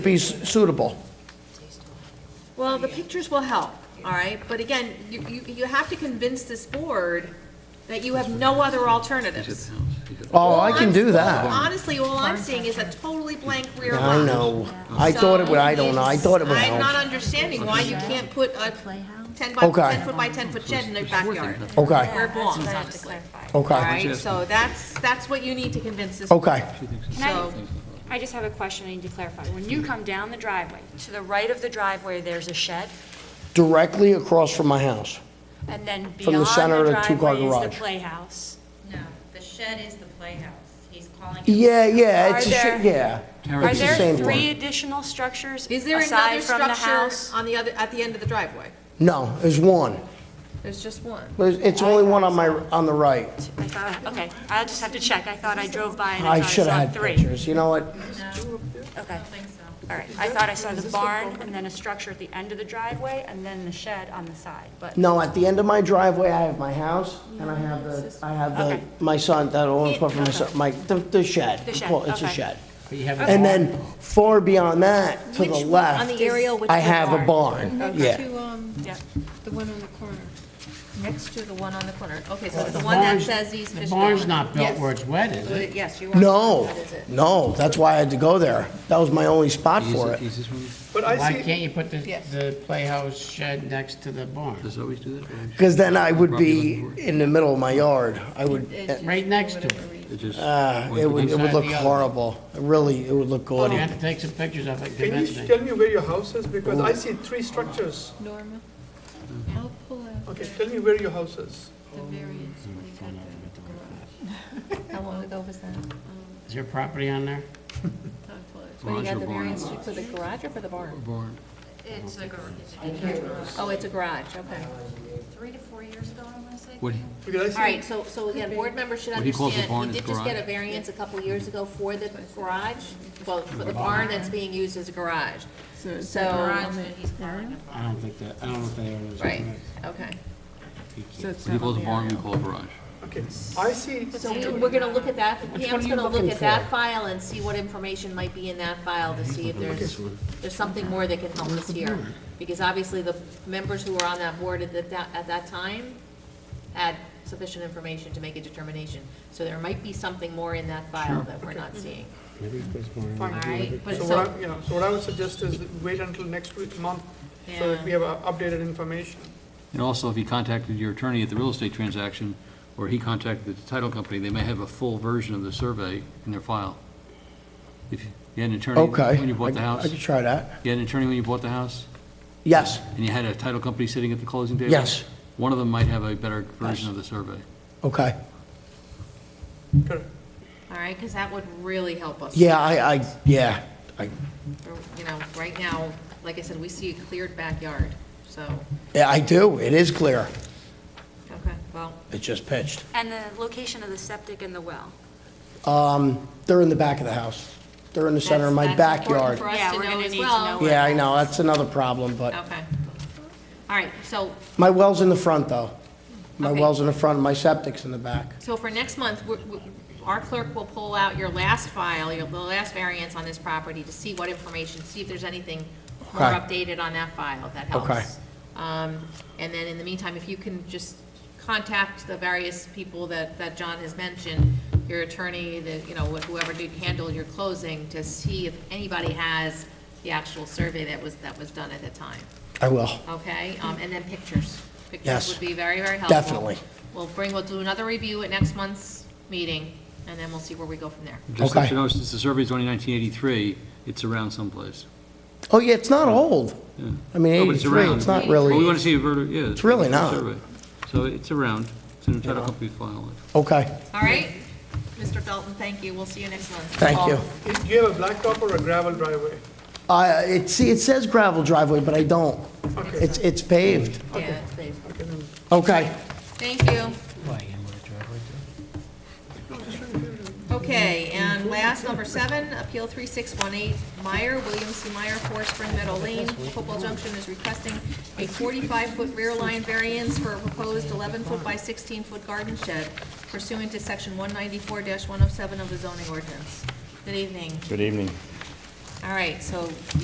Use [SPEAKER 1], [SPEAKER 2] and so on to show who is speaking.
[SPEAKER 1] be s- suitable.
[SPEAKER 2] Well, the pictures will help, all right? But again, you, you, you have to convince this board that you have no other alternatives.
[SPEAKER 1] Oh, I can do that.
[SPEAKER 2] Honestly, all I'm seeing is a totally blank rear lot.
[SPEAKER 1] I know. I thought it would, I don't know, I thought it would
[SPEAKER 2] I'm not
[SPEAKER 1] help.
[SPEAKER 2] understanding why you can't put a ten by,
[SPEAKER 1] Okay.
[SPEAKER 2] ten foot by ten foot shed in their backyard. Where
[SPEAKER 1] Okay,
[SPEAKER 2] it belongs, honestly. All
[SPEAKER 1] okay,
[SPEAKER 2] right, so that's, that's what you need to convince this.
[SPEAKER 1] okay.
[SPEAKER 3] Can I,
[SPEAKER 2] So,
[SPEAKER 3] I just have a question I need to clarify. When you come down the driveway, to the right of the driveway, there's a shed,
[SPEAKER 1] Directly across from my house.
[SPEAKER 3] and then
[SPEAKER 1] From the
[SPEAKER 3] beyond
[SPEAKER 1] center of
[SPEAKER 3] the
[SPEAKER 1] the two-car
[SPEAKER 3] driveway is the
[SPEAKER 1] garage.
[SPEAKER 3] playhouse.
[SPEAKER 4] No, the shed is the playhouse. He's calling it.
[SPEAKER 1] Yeah, yeah, it's a,
[SPEAKER 3] Are
[SPEAKER 1] sh-
[SPEAKER 3] there-
[SPEAKER 1] yeah.
[SPEAKER 3] Are
[SPEAKER 1] It's the
[SPEAKER 3] there
[SPEAKER 1] same
[SPEAKER 3] three
[SPEAKER 1] one.
[SPEAKER 3] additional structures
[SPEAKER 2] is there another
[SPEAKER 3] aside from the
[SPEAKER 2] structure
[SPEAKER 3] house?
[SPEAKER 2] on the other, at the end of the driveway?
[SPEAKER 1] No, there's one.
[SPEAKER 2] There's just one.
[SPEAKER 1] There's- It's only one on my, on the right.
[SPEAKER 3] I thought- Okay, I'll just have to check. I thought I drove by and I
[SPEAKER 1] I
[SPEAKER 3] thought
[SPEAKER 1] should
[SPEAKER 3] I
[SPEAKER 1] have had
[SPEAKER 3] saw three.
[SPEAKER 1] pictures, you know what?
[SPEAKER 3] Okay, all right. I thought I saw the barn and then a structure at the end of the driveway and then the shed on the side, but,
[SPEAKER 1] No, at the end of my driveway, I have my house, and I have the, I have the,
[SPEAKER 3] Okay.
[SPEAKER 1] my son, that only put for my son, my, the the shed.
[SPEAKER 3] The shed,
[SPEAKER 1] Well, It's a
[SPEAKER 3] okay.
[SPEAKER 1] shed. And then far beyond that, to the
[SPEAKER 5] Which- on
[SPEAKER 1] left.
[SPEAKER 5] the aerial, which
[SPEAKER 1] I
[SPEAKER 5] is
[SPEAKER 1] have a
[SPEAKER 5] barn.
[SPEAKER 1] barn, yeah.
[SPEAKER 5] To, um,
[SPEAKER 3] yeah.
[SPEAKER 5] the one on the corner.
[SPEAKER 2] Next to the one on the corner. Okay, so it's the one that says East Fishkill.
[SPEAKER 6] The barn's not built where it's wet, is it?
[SPEAKER 2] Yes, you are.
[SPEAKER 1] No,
[SPEAKER 2] That is it.
[SPEAKER 1] no, that's why I had to go there. That was my only spot for it.
[SPEAKER 7] But
[SPEAKER 6] Why
[SPEAKER 7] I see,
[SPEAKER 6] can't you put the, the playhouse shed next to the barn?
[SPEAKER 7] does always do that?
[SPEAKER 1] Because then I would be in the middle of my yard. I would,
[SPEAKER 6] Right next to it.
[SPEAKER 7] It just-
[SPEAKER 1] uh, it would, it would look
[SPEAKER 6] Inside the other.
[SPEAKER 1] horrible. It Really, it would look
[SPEAKER 6] You
[SPEAKER 1] gaudy.
[SPEAKER 6] have to take some pictures of it,
[SPEAKER 7] Can you
[SPEAKER 6] convince me.
[SPEAKER 7] tell me where your house is? Because
[SPEAKER 6] Oh.
[SPEAKER 7] I see three structures.
[SPEAKER 5] Norma, I'll pull out the
[SPEAKER 7] Okay, tell me where your house is.
[SPEAKER 5] the variance when you got the- How long ago was that? Um,
[SPEAKER 6] Is there property on there?
[SPEAKER 5] When you got the variance for the garage or for the barn?
[SPEAKER 4] It's like
[SPEAKER 2] Oh, it's a garage, okay.
[SPEAKER 4] three to four years ago, I want to say.
[SPEAKER 8] What, he-
[SPEAKER 7] Because
[SPEAKER 2] All
[SPEAKER 7] I
[SPEAKER 2] right, so, so again, board members should
[SPEAKER 8] What he calls the
[SPEAKER 2] understand,
[SPEAKER 8] barn
[SPEAKER 2] we
[SPEAKER 8] is
[SPEAKER 2] did just get a
[SPEAKER 8] garage.
[SPEAKER 2] variance a couple years ago for the garage, well, for the barn that's being used as a garage. So,
[SPEAKER 4] Garage that he's calling.
[SPEAKER 6] I don't think that, I don't know if they own this.
[SPEAKER 2] right, okay.
[SPEAKER 8] what he calls a barn, we call a garage.
[SPEAKER 7] see, okay, I see,
[SPEAKER 2] So we, we're gonna look at that, Pam's
[SPEAKER 6] you
[SPEAKER 2] gonna look
[SPEAKER 6] looking
[SPEAKER 2] at that file and see what information might be in that file to see if there's, there's something more that can help us here. Because obviously, the members who were on that board at that, at that time had sufficient information to make a determination. So there might be something more in that file that we're not seeing, all right? But
[SPEAKER 7] so
[SPEAKER 2] so-
[SPEAKER 7] what I, you know, so what I would suggest is wait until next week, month, so that we have uh, updated information.
[SPEAKER 8] And also, if he contacted your attorney at the real estate transaction, or he contacted the title company, they may have a full version of the survey in their file. If you had an attorney
[SPEAKER 1] Okay.
[SPEAKER 8] Oh. when you bought the
[SPEAKER 1] I-
[SPEAKER 8] house,
[SPEAKER 1] I could try that.
[SPEAKER 8] you had an attorney when you bought the house,
[SPEAKER 1] Yes,
[SPEAKER 8] and you had a title company sitting at the closing table?
[SPEAKER 1] Yes.
[SPEAKER 8] One of them might have a better version of the survey.
[SPEAKER 1] okay.
[SPEAKER 7] Correct.
[SPEAKER 2] All right, because that would really help us.
[SPEAKER 1] Yeah, I, I, yeah, I,
[SPEAKER 2] Or, You know, right now, like I said, we see a cleared backyard, so,
[SPEAKER 1] yeah, I do. It is clear.
[SPEAKER 2] okay, well,
[SPEAKER 1] It's just pitched.
[SPEAKER 3] And the location of the septic and the well.
[SPEAKER 1] Um, they're in the back of the house. They're in the center of my
[SPEAKER 2] That's- that's
[SPEAKER 1] backyard.
[SPEAKER 2] important for us
[SPEAKER 3] Yeah,
[SPEAKER 2] to
[SPEAKER 3] we're
[SPEAKER 2] know
[SPEAKER 3] gonna
[SPEAKER 2] as
[SPEAKER 3] need to
[SPEAKER 2] well.
[SPEAKER 3] know.
[SPEAKER 1] Yeah, I know, that's another problem, but
[SPEAKER 2] okay. All right, so,
[SPEAKER 1] my well's in the front, though. My
[SPEAKER 2] Okay.
[SPEAKER 1] well's in the front, my septic's in the back.
[SPEAKER 2] so for next month, we- we- our clerk will pull out your last file, your, the last variance on this property to see what information, see if there's anything more
[SPEAKER 1] Okay.
[SPEAKER 2] updated on that file, if that
[SPEAKER 1] Okay.
[SPEAKER 2] helps. Um, and then in the meantime, if you can just contact the various people that, that John has mentioned, your attorney, the, you know, whoever did handle your closing, to see if anybody has the actual survey that was, that was done at the time.
[SPEAKER 1] I will.
[SPEAKER 2] Okay, um, and then pictures.
[SPEAKER 1] Yes.
[SPEAKER 2] Pictures would be very, very helpful.
[SPEAKER 1] Definitely.
[SPEAKER 2] We'll bring, we'll do another review at next month's meeting, and then we'll see where we go from there.
[SPEAKER 8] Just so
[SPEAKER 1] Okay.
[SPEAKER 8] you know, since the survey's only 1983, it's around someplace.
[SPEAKER 1] Oh, yeah, it's not old. I mean,
[SPEAKER 8] Oh, but it's
[SPEAKER 1] 83,
[SPEAKER 8] around.
[SPEAKER 1] it's not
[SPEAKER 8] Well, we
[SPEAKER 1] really,
[SPEAKER 8] want to see a verti, yeah. It's
[SPEAKER 1] really
[SPEAKER 8] a
[SPEAKER 1] not.
[SPEAKER 8] survey. So it's around, it's in the title company file.
[SPEAKER 1] okay,
[SPEAKER 2] All right? Mr. Felton, thank you. We'll see you next month.
[SPEAKER 1] thank you.
[SPEAKER 7] Do you have a blacktop or a gravel driveway?
[SPEAKER 1] Uh, it, see, it says gravel driveway, but I don't.
[SPEAKER 7] Okay,
[SPEAKER 1] It's, it's paved.
[SPEAKER 2] Oh, Yeah, please.
[SPEAKER 1] Okay.
[SPEAKER 2] Thank you. Okay, and last, number seven, Appeal 3618, Meyer, William C. Meyer, Four Spring Meadow Lane, Football Junction is requesting a 45-foot rear line variance for a proposed 11-foot by 16-foot garden shed pursuant to oh Section 194-107 of the zoning ordinance. Good evening.
[SPEAKER 9] Good evening.
[SPEAKER 2] All right, so